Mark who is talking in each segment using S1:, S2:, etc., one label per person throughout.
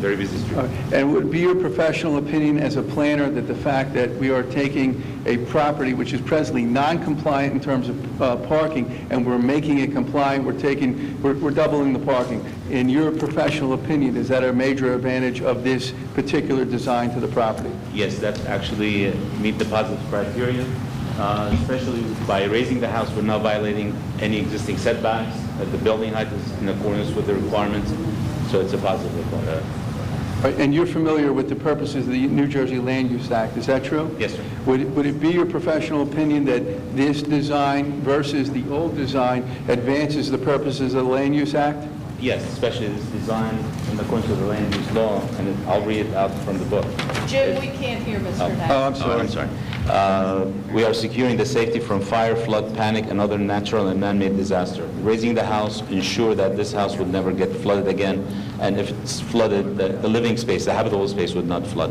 S1: Very busy street.
S2: All right. Uh, And would it be your professional opinion as a planner that the fact that we are taking a property which is presently non-compliant in terms of uh, parking, and we're making it compliant, we're taking, we're we're doubling the parking, in your professional opinion, is that a major advantage of this particular design to the property?
S1: Yes, that's actually uh, meet the positive criteria, uh, especially by raising the house, we're not violating any existing setbacks, that the building height is in accordance with the requirements, so it's a positive. uh,
S2: All right, And you're familiar with the purposes of the New Jersey Land Use Act, is that true?
S1: Yes, sir.
S2: Would it- would it be your professional opinion that this design versus the old design advances the purposes of the Land Use Act?
S1: Yes, especially this design in accordance with the land use law, and it- I'll read it out from the book.
S3: Jim, we can't hear Mr.
S2: Oh,
S3: Knapp.
S2: I'm
S1: Oh,
S2: sorry.
S1: I'm sorry. Uh, We are securing the safety from fire, flood, panic, and other natural and man-made disaster. Raising the house, ensure that this house would never get flooded again, and if it's flooded, the the living space, the habitable space would not flood.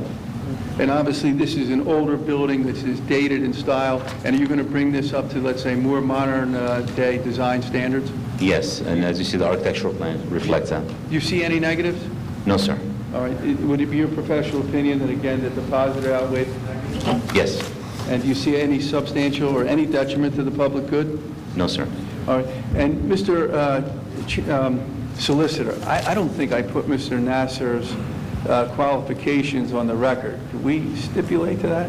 S2: And obviously, this is an older building, this is dated in style, and are you going to bring this up to, let's say, more modern-day design standards?
S1: Yes, and as you see, the architectural plan reflects that.
S2: Do you see any negatives?
S1: No, sir.
S2: All right, it- would it be your professional opinion that, again, that the positive outweigh,
S1: Yes.
S2: and do you see any substantial or any detriment to the public good?
S1: No, sir.
S2: All right, and Mr. uh, Ch- um, Solicitor, I I don't think I put Mr. Nasser's uh, qualifications on the record. Could we stipulate to that?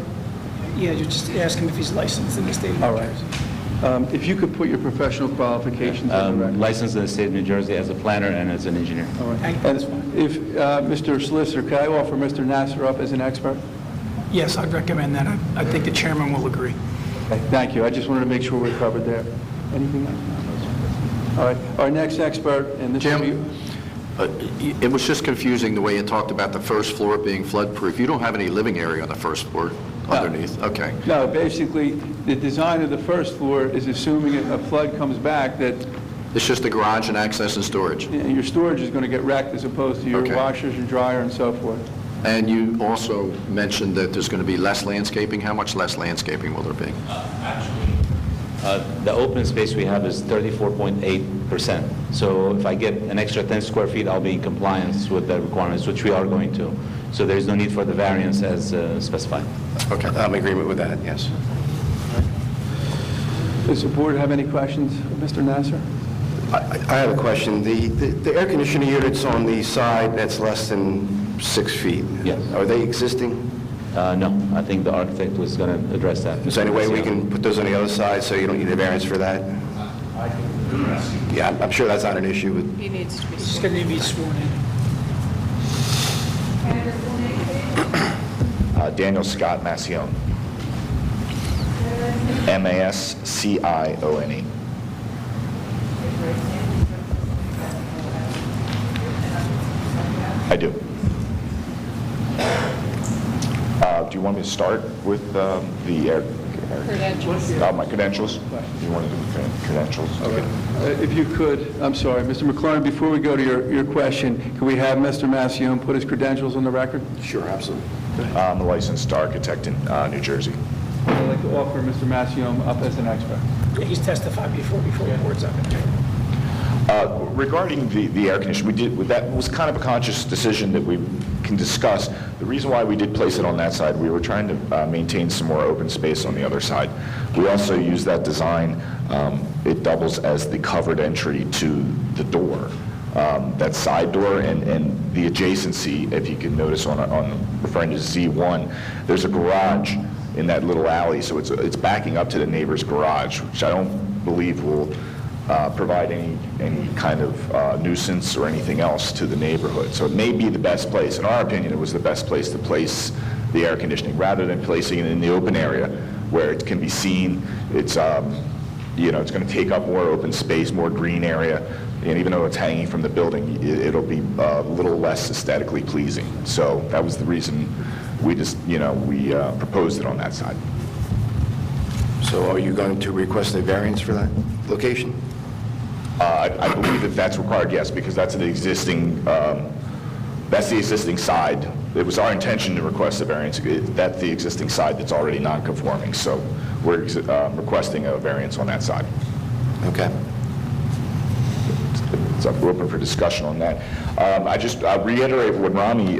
S4: Yeah, you just ask him if he's licensed in the state of New
S2: All right.
S4: Jersey.
S2: Um, If you could put your professional qualifications on the record.
S1: Um, Licensed in the state of New Jersey as a planner and as an engineer.
S2: All right.
S4: Thank you.
S2: And if, uh, Mr. Solicitor, could I offer Mr. Nasser up as an expert?
S4: Yes, I'd recommend that. I I think the chairman will agree.
S2: Thank you, I just wanted to make sure we're covered there. Anything else? All right, our next expert, and this will be...
S5: Jim? Uh, It was just confusing the way you talked about the first floor being floodproof. You don't have any living area on the first floor underneath? Okay.
S2: No, basically, the design of the first floor is assuming if a flood comes back, that
S5: It's just the garage and access and storage.
S2: you know, your storage is going to get wrecked as opposed to your
S5: Okay.
S2: washers and dryer and so forth.
S5: And you also mentioned that there's going to be less landscaping. How much less landscaping will there be?
S1: Uh, The open space we have is 34.8%. So if I get an extra 10 square feet, I'll be in compliance with the requirements, which we are going to. So there is no need for the variance as uh, specified.
S5: Okay, I'm in agreement with that, yes.
S2: Does the board have any questions of Mr. Nasser?
S6: I I have a question. The the the air conditioning units on the side that's less than six feet?
S1: Yes.
S6: Are they existing?
S1: Uh, No, I think the architect was going to address that.
S6: Is there any way we can put those on the other side so you don't need a variance for that? Yeah, I'm- I'm sure that's not an issue with
S3: He needs to be
S4: He's
S3: sworn.
S4: going to be sworn in.
S7: Uh, Daniel Scott Massione.
S5: E.
S7: M-A-S-C-I-O-N-E. I do. Uh, Do you want me to start with um, the air? air-
S3: Credentials.
S7: Uh, My credentials? You want to do the cred- credentials? Okay.
S2: Uh, If you could, I'm sorry, Mr. McLaurin, before we go to your, your question, can we have Mr. Massione put his credentials on the record?
S6: Sure, absolutely.
S7: I'm a licensed architect in uh, New Jersey.
S2: I'd like to offer Mr. Massione up as an expert.
S4: Yeah, He's testified before, before the board's up.
S7: Uh, Regarding the, the air conditioner, we did, that was kind of a conscious decision that we can discuss. The reason why we did place it on that side, we were trying to uh, maintain some more open space on the other side. We also use that design, um, it doubles as the covered entry to the door, um, that side door, and, and the adjacency, if you can notice on, on referring to Z1, there's a garage in that little alley, so it's, it's backing up to the neighbor's garage, which I don't believe will uh, provide any, any kind of uh, nuisance or anything else to the neighborhood. So it may be the best place, in our opinion, it was the best place to place the air conditioning, rather than placing it in the open area where it can be seen, it's, um, you know, it's going to take up more open space, more green area, and even though it's hanging from the building, i- it'll be uh, a little less aesthetically pleasing. So that was the reason we just, you know, we uh, proposed it on that side.
S6: So are you going to request a variance for that location?
S7: Uh, I I believe that that's required, yes, because that's the existing, um, that's the existing side. It was our intention to request a variance. It- That's the existing side that's already non-conforming, so we're ex- um, uh, requesting a variance on that side.
S6: Okay.
S7: it's up- we're open for discussion on that. Um, I just, I reiterate what Rami